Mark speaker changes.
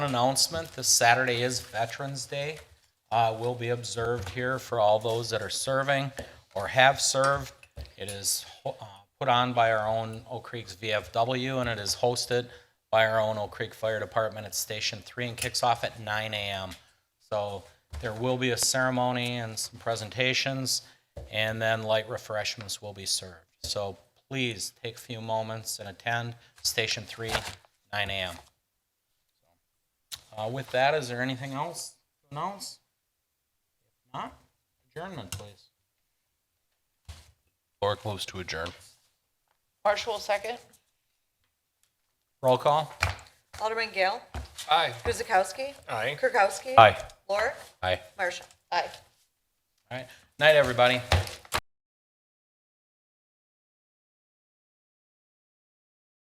Speaker 1: announcement, this Saturday is Veterans Day. Uh, will be observed here for all those that are serving or have served. It is, ho- uh, put on by our own Oak Creek's VFW and it is hosted by our own Oak Creek Fire Department at Station Three and kicks off at nine AM. So there will be a ceremony and some presentations and then light refreshments will be served. So please take a few moments and attend Station Three, nine AM. Uh, with that, is there anything else to announce? If not, adjournment, please.
Speaker 2: Floor closed to adjourn.
Speaker 3: Marshall, second.
Speaker 1: Roll call?
Speaker 4: Alderman Gale.
Speaker 2: Aye.
Speaker 4: Guzekowski.
Speaker 2: Aye.
Speaker 4: Kirkowski.
Speaker 2: Aye.
Speaker 4: Lorik.
Speaker 2: Aye.
Speaker 4: Marshall. Aye.
Speaker 1: All right. Night, everybody.